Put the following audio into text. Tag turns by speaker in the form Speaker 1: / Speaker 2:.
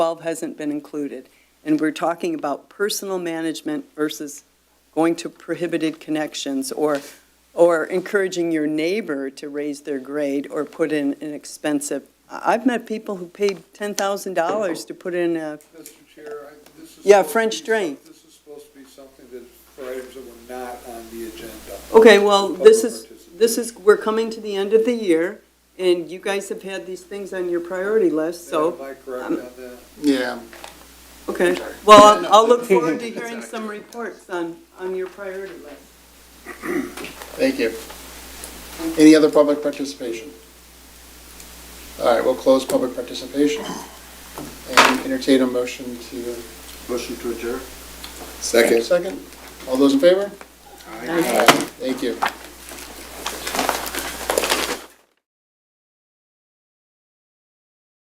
Speaker 1: 12 hasn't been included. And we're talking about personal management versus going to prohibited connections or, or encouraging your neighbor to raise their grade or put in an expensive. I- I've met people who paid $10,000 to put in a,
Speaker 2: Mr. Chair, I- this is.
Speaker 1: Yeah,
Speaker 2: supposed to
Speaker 1: French
Speaker 2: be-
Speaker 1: drain.
Speaker 2: This is supposed to be something that, for items that were not on the agenda.
Speaker 1: okay, well, this is,
Speaker 2: Public
Speaker 1: this is, we're coming to the end of the year and you guys have had these things on your priority list, so,
Speaker 2: Am I correct
Speaker 1: um,
Speaker 2: on that?
Speaker 3: Yeah,
Speaker 1: okay. Well, I'll- I'll look forward to hearing some reports on, on your priority list.
Speaker 3: thank you. Any other public participation? All right, we'll close public participation and entertain a motion to.
Speaker 2: Motion to adjourn?
Speaker 3: Second. Second. All those in favor? Thank you.